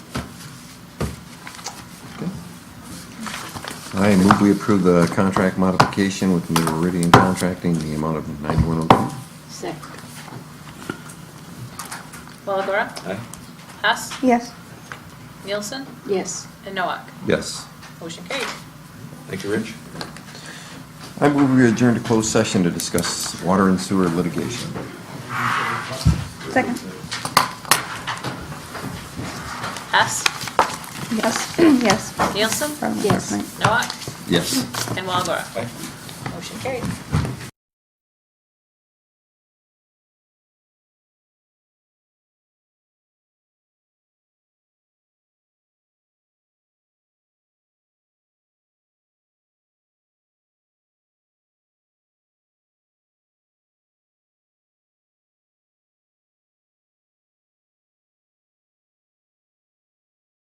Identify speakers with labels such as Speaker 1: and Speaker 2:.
Speaker 1: I move we approve the contract modification with Meridian Contracting, the amount of 9102.
Speaker 2: Second.
Speaker 3: Walagora?
Speaker 4: Aye.
Speaker 3: Hess?
Speaker 5: Yes.
Speaker 3: Nielsen?
Speaker 2: Yes.
Speaker 3: And Noak?
Speaker 1: Yes.
Speaker 3: Motion carried.
Speaker 4: Thank you, Rich.
Speaker 1: I move we adjourn to closed session to discuss water and sewer litigation.
Speaker 5: Second.
Speaker 3: Hess?
Speaker 5: Yes. yes.
Speaker 3: Nielsen?
Speaker 5: Probably.
Speaker 2: Yes.
Speaker 5: Right.
Speaker 3: Noak?
Speaker 1: Yes.
Speaker 3: And Walagora?
Speaker 4: Aye.
Speaker 3: Motion carried.